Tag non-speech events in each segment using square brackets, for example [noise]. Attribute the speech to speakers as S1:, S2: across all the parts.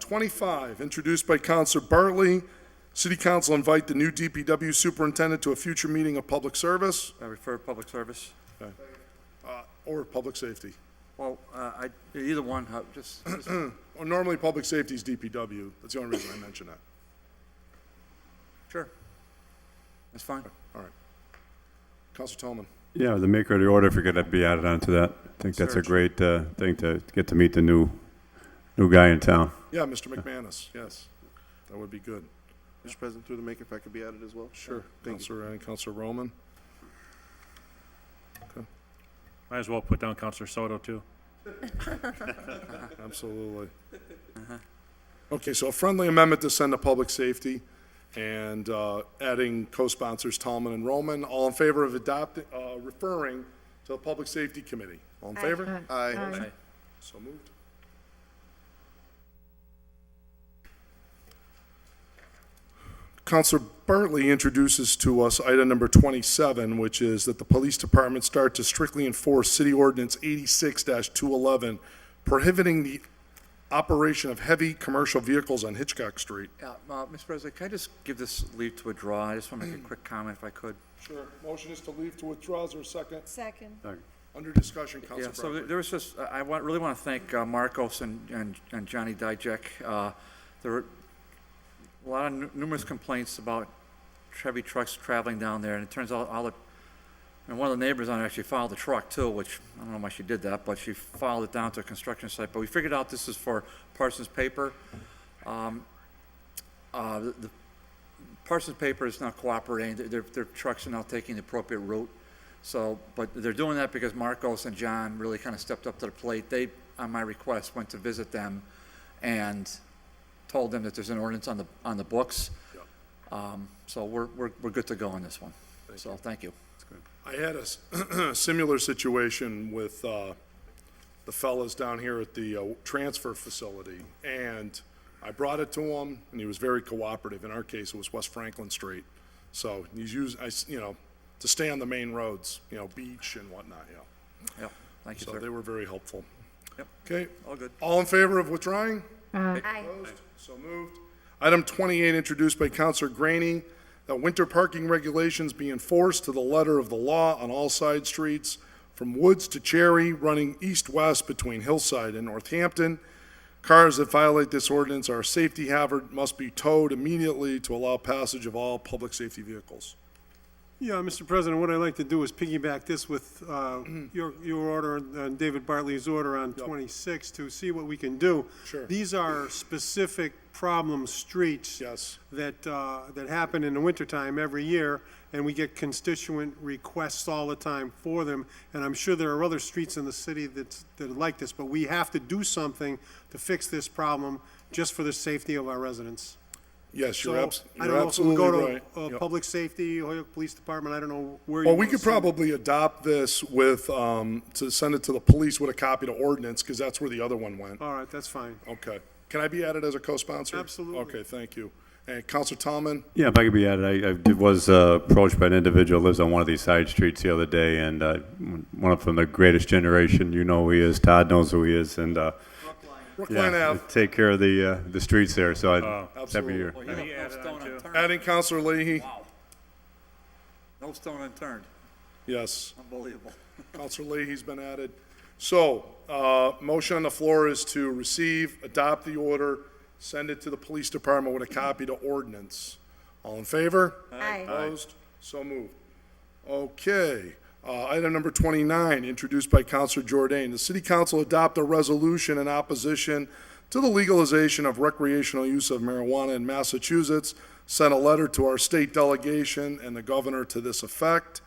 S1: 25, introduced by Counselor Bartley, City Council invite the new DPW Superintendent to a future meeting of public service
S2: I refer to public service.
S1: or public safety.
S2: Well, uh, I, either one, uh, just, just-
S1: Well, Normally, public safety is DPW. That's the only reason I mention that.
S2: [clears throat] sure. That's fine.
S1: All right. Counselor Tomlin.
S3: Yeah, the maker of the order, if you're going to be added onto that, I think that's a great uh, thing to get to meet the new, new guy in town.
S1: Yeah, Mr. McManus, yes. That would be good.
S4: Mr. President, through the maker, if I could be added as well?
S1: Sure. Counselor, and Counselor Roman.
S5: Might as well put down Counselor Soto, too.
S4: [laughs]
S1: Absolutely.
S4: Uh-huh.
S1: Okay, so a friendly amendment to send to public safety and uh, adding co-sponsors Tallman and Roman. All in favor of adopting, uh, referring to the Public Safety Committee? All in favor?
S4: Aye.
S1: So moved. Counselor Bartley introduces to us item number 27, which is that the police department start to strictly enforce City Ordinance 86-211 prohibiting the operation of heavy commercial vehicles on Hitchcock Street.
S2: Yeah, uh, Mr. President, can I just give this leave to withdraw? I just want to [clears throat] make a quick comment if I could.
S1: Sure. Motion is to leave to withdraw. Is there a second?
S6: Second.
S1: Under discussion,
S2: Yeah,
S1: Counselor
S2: so
S1: Bartley.
S2: there- there was just, I I want, really want to thank uh, Marcos and, and and Johnny Dijek. Uh, There were a lot of nu- numerous complaints about Chevy trucks traveling down there, and it turns out all the, and one of the neighbors on it actually filed the truck too, which, I don't know why she did that, but she filed it down to a construction site, but we figured out this is for Parsons Paper. Um, uh, The the Parsons Paper is not cooperating, Their- their, their trucks are not taking the appropriate route. So, but they're doing that because Marcos and John really kind of stepped up to the plate. They, on my request, went to visit them and told them that there's an ordinance on the, on the books. Um, So we're, we're, we're good to go on this one. So, thank you.
S1: I had a s- [clears throat] similar situation with uh, the fellas down here at the uh, transfer facility, and I brought it to him, and he was very cooperative. In our case, it was West Franklin Street. So he's used, I, s- you know, to stay on the main roads, you know, beach and whatnot, you know.
S2: Yep, thank you,
S1: So they
S2: sir.
S1: were very helpful.
S2: Yep,
S1: Okay,
S2: all good.
S1: all in favor of withdrawing? Opposed? So moved. Item 28, introduced by Counselor Graney, that winter parking regulations be enforced to the letter of the law on all side streets, from Woods to Cherry, running east-west between Hillside and Northampton. Cars that violate this ordinance are a safety hazard, must be towed immediately to allow passage of all public safety vehicles.
S7: Yeah, Mr. President, what I'd like to do is piggyback this with uh,
S1: Mm-hmm.
S7: your your order, uh, David Bartley's order on 26, to see what we can do.
S1: Sure.
S7: These are specific problem streets.
S1: Yes.
S7: That, uh, that happen in the wintertime every year, and we get constituent requests all the time for them. And I'm sure there are other streets in the city that's, that are like this, but we have to do something to fix this problem just for the safety of our residents.
S1: Yes,
S7: So
S1: you're abs-
S7: I
S1: you're
S7: don't know if we go
S1: absolutely
S7: to
S1: right.
S7: uh,
S1: Yep.
S7: Public Safety, Hoyok Police Department, I don't know where you
S1: Well, we
S7: wanna
S1: could
S7: send it.
S1: probably adopt this with, um, to send it to the police with a copy to ordinance, because that's where the other one went.
S7: All right, that's fine.
S1: Okay. Can I be added as a co-sponsor?
S7: Absolutely.
S1: Okay, thank you. And Counselor Tomlin,
S3: Yeah, if I could be added, I, I did- was uh, approached by an individual who lives on one of these side streets the other day, and uh, one of from the greatest generation, you know who he is, Todd knows who he is, and, uh,
S1: Brookline
S3: yeah,
S1: Ave,
S3: take care of the, uh, the streets there, so I, it's
S1: Absolutely.
S3: every year.
S2: Well, you don't- no
S5: added on
S2: stone
S5: to-
S2: unturned.
S1: adding Counselor Leahy.
S2: Wow. No stone unturned,
S1: Yes,
S2: unbelievable.
S1: Counselor Leahy's been added. So, uh, motion on the floor is to receive, adopt the order, send it to the police department with a copy to ordinance. All in favor?
S6: Aye.
S1: Opposed? So moved. Okay. Uh, Item number 29, introduced by Counselor Jordan. The city council adopt a resolution in opposition to the legalization of recreational use of marijuana in Massachusetts. Sent a letter to our state delegation and the governor to this effect.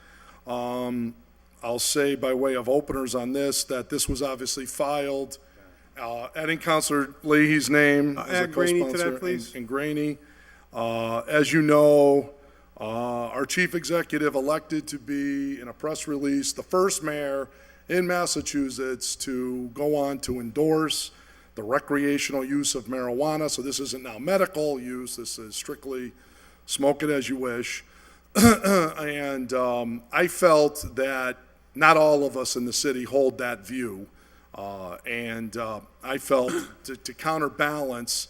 S1: Um, I'll say by way of openers on this, that this was obviously filed, uh, adding Counselor Leahy's name as a
S7: Uh, add Graney to that,
S1: co-sponsor. and-
S7: please.
S1: And Graney. Uh, As you know, uh, our chief executive elected to be, in a press release, the first mayor in Massachusetts to go on to endorse the recreational use of marijuana. So this isn't now medical use, this is strictly smoke it as you wish. [clears throat] And um, I felt that not all of us in the city hold that view. Uh, And uh, I felt to to counterbalance